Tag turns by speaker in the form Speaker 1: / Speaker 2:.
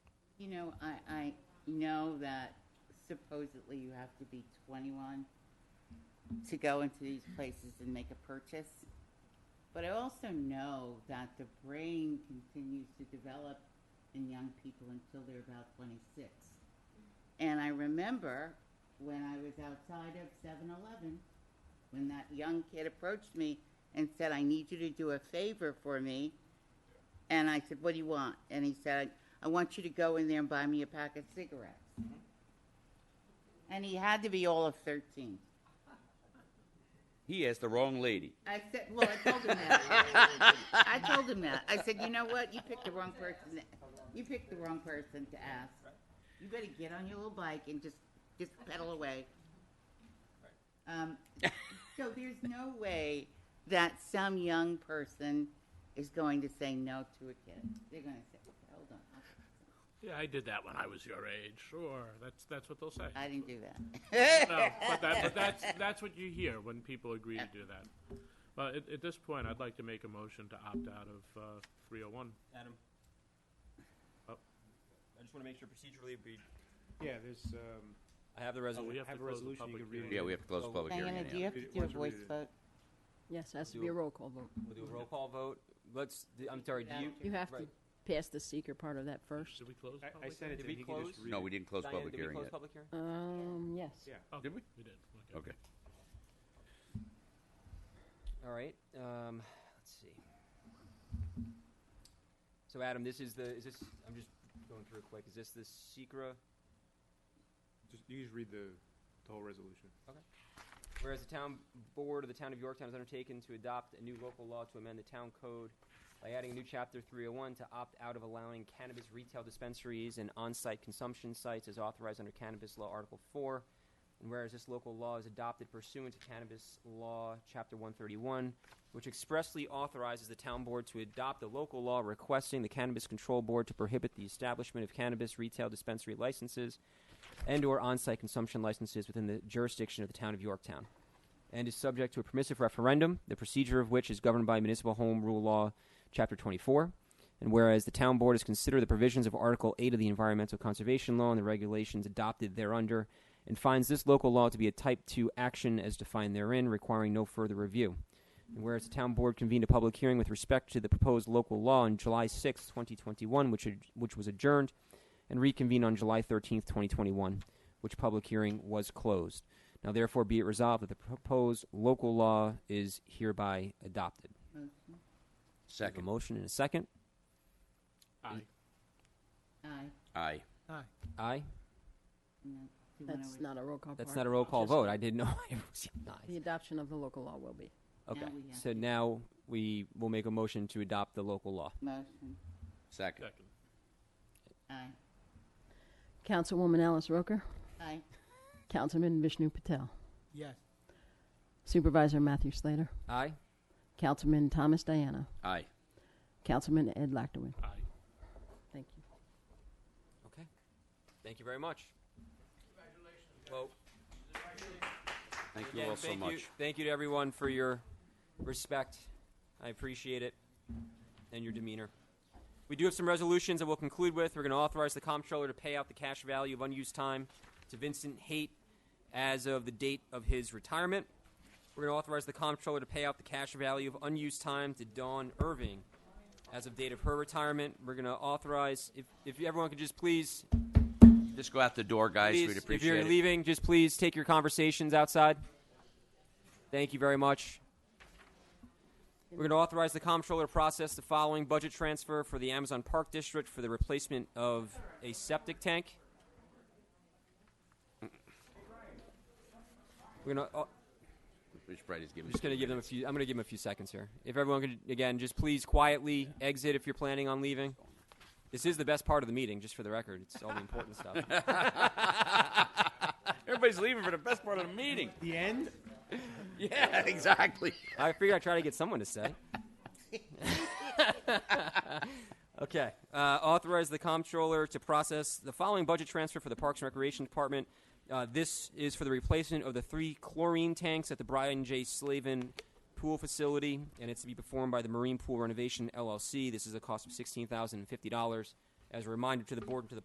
Speaker 1: You know, I, I know that supposedly you have to be 21 to go into these places and make a purchase. But I also know that the brain continues to develop in young people until they're about 26. And I remember when I was outside of 7 Eleven, when that young kid approached me and said, I need you to do a favor for me. And I said, What do you want? And he said, I want you to go in there and buy me a pack of cigarettes. And he had to be all of 13.
Speaker 2: He asked the wrong lady.
Speaker 1: I said, Well, I told him that. I told him that. I said, You know what? You picked the wrong person. You picked the wrong person to ask. You better get on your little bike and just, just pedal away. Um, so there's no way that some young person is going to say no to a kid. They're going to say, okay, hold on.
Speaker 3: Yeah, I did that when I was your age. Sure, that's that's what they'll say.
Speaker 1: I didn't do that.
Speaker 3: No, but, that, but that's that's what you hear when people agree to do that. But at, at this point, I'd like to make a motion to opt out of uh, 301.
Speaker 4: Adam?
Speaker 3: Oh.
Speaker 4: I just want to make sure procedurally we,
Speaker 5: Yeah, there's, um,
Speaker 4: I have the
Speaker 3: Oh, we
Speaker 4: resolution.
Speaker 3: have to
Speaker 5: Have a
Speaker 3: close the
Speaker 5: resolution, you
Speaker 3: public
Speaker 5: can read
Speaker 3: hearing.
Speaker 5: it. Oh,
Speaker 2: Yeah, we have to close the public hearing
Speaker 1: Diana, do you
Speaker 2: anyhow.
Speaker 1: have to
Speaker 5: It-
Speaker 1: do a
Speaker 5: once we
Speaker 1: voice
Speaker 5: read it.
Speaker 1: vote?
Speaker 6: Yes, it has to
Speaker 4: Do
Speaker 6: be
Speaker 4: a-
Speaker 6: a roll call vote.
Speaker 4: We'll do a roll call vote. Let's, d- I'm sorry, do you?
Speaker 6: You have to
Speaker 4: right.
Speaker 6: pass the seeker part of that first.
Speaker 3: Did we close?
Speaker 5: I, I
Speaker 3: public
Speaker 5: sent it
Speaker 4: Did
Speaker 5: to
Speaker 4: we
Speaker 5: him, he can just
Speaker 4: close?
Speaker 5: read it.
Speaker 2: No, we didn't close
Speaker 4: Diana,
Speaker 2: public
Speaker 4: did we
Speaker 2: hearing
Speaker 4: close
Speaker 2: yet.
Speaker 4: public hearing?
Speaker 6: Um, yes.
Speaker 5: Yeah.
Speaker 3: hearing?
Speaker 2: Did we?
Speaker 3: Oh, We did. Okay.
Speaker 2: Okay.
Speaker 4: All right, um, let's see. So Adam, this is the, is this, I'm just going through it quick. Is this the secra?
Speaker 5: Just, you just read the, the whole resolution.
Speaker 4: Whereas the town board of the town of Yorktown has undertaken to adopt a new local law to amend the town code by adding a new chapter 301 to opt out of allowing cannabis retail dispensaries and on-site consumption sites as authorized under cannabis law article 4 and whereas this local law is adopted pursuant to cannabis law chapter 131 which expressly authorizes the town board to adopt a local law requesting the cannabis control board to prohibit the establishment of cannabis retail dispensary licenses and or on-site consumption licenses within the jurisdiction of the town of Yorktown and is subject to a permissive referendum, the procedure of which is governed by Municipal Home Rule Law, Chapter 24. And whereas the Town Board is considered the provisions of Article 8 of the Environmental Conservation Law and the regulations adopted thereunder, and finds this local law to be a Type 2 action as defined therein, requiring no further review. And whereas the Town Board convened a public hearing with respect to the proposed local law on July 6, 2021, which, ad- which was adjourned, and reconvened on July 13, 2021, which public hearing was closed. Now, therefore, be it resolved that the proposed local law is hereby adopted.
Speaker 1: Motion?
Speaker 4: We have A
Speaker 2: Second.
Speaker 4: motion and a second.
Speaker 3: Aye.
Speaker 1: Aye.
Speaker 2: Aye.
Speaker 4: Aye.
Speaker 1: No. Do you wanna
Speaker 6: That's
Speaker 1: re-
Speaker 6: not a roll call part.
Speaker 4: That's not a roll call vote. I didn't know. I was
Speaker 6: The
Speaker 4: aye.
Speaker 6: adoption of the local law will be.
Speaker 4: Okay.
Speaker 1: we have
Speaker 4: So now we will make a motion to adopt the local law.
Speaker 1: Motion?
Speaker 2: Second.
Speaker 3: Second.
Speaker 1: Aye.
Speaker 6: Councilwoman Alice Roker,
Speaker 1: Aye.
Speaker 6: Councilman Vishnu Patel,
Speaker 7: Yes.
Speaker 6: Supervisor Matthew Slater,
Speaker 4: Aye.
Speaker 6: Councilman Thomas Diana,
Speaker 2: Aye.
Speaker 6: Councilman Ed Lactowin.
Speaker 3: Aye.
Speaker 6: Thank you.
Speaker 4: Okay. Thank you very much. Congratulations.
Speaker 2: Thank
Speaker 4: Well,
Speaker 2: you
Speaker 4: again,
Speaker 2: all so
Speaker 4: thank you-
Speaker 2: much.
Speaker 4: Thank you to everyone for your respect. I appreciate it and your demeanor. We do have some resolutions that we'll conclude with. We're going to authorize the comptroller to pay out the cash value of unused time to Vincent Haight as of the date of his retirement. We're going to authorize the comptroller to pay out the cash value of unused time to Dawn Irving as of date of her retirement. We're going to authorize, if, if everyone could just please,
Speaker 2: Just go out the door, guys.
Speaker 4: please
Speaker 2: We'd
Speaker 4: if you're
Speaker 2: appreciate it.
Speaker 4: leaving, just please take your conversations outside. Thank you very much. We're going to authorize the comptroller to process the following budget transfer for the Amazon Park District for the replacement of a septic tank. We're going to. Oh,
Speaker 2: Mr. Bright is
Speaker 4: I'm
Speaker 2: giving
Speaker 4: just going to give them a few. I'm going to give them a few seconds here. If everyone could, again, just please quietly exit if you're planning on leaving. This is the best part of the meeting, just for the record. It's all the important stuff.
Speaker 2: Everybody's leaving for the best part of the meeting.
Speaker 5: The end?
Speaker 2: Yeah, exactly.
Speaker 4: I figured I'd try to get someone to say. okay. Uh, authorize the comptroller to process the following budget transfer for the Parks and Recreation Department. Uh, this is for the replacement of the three chlorine tanks at the Brian J. Slavin pool facility, and it's to be performed by the Marine Pool Renovation LLC. This is a cost of $16,050. As a reminder to the board and to the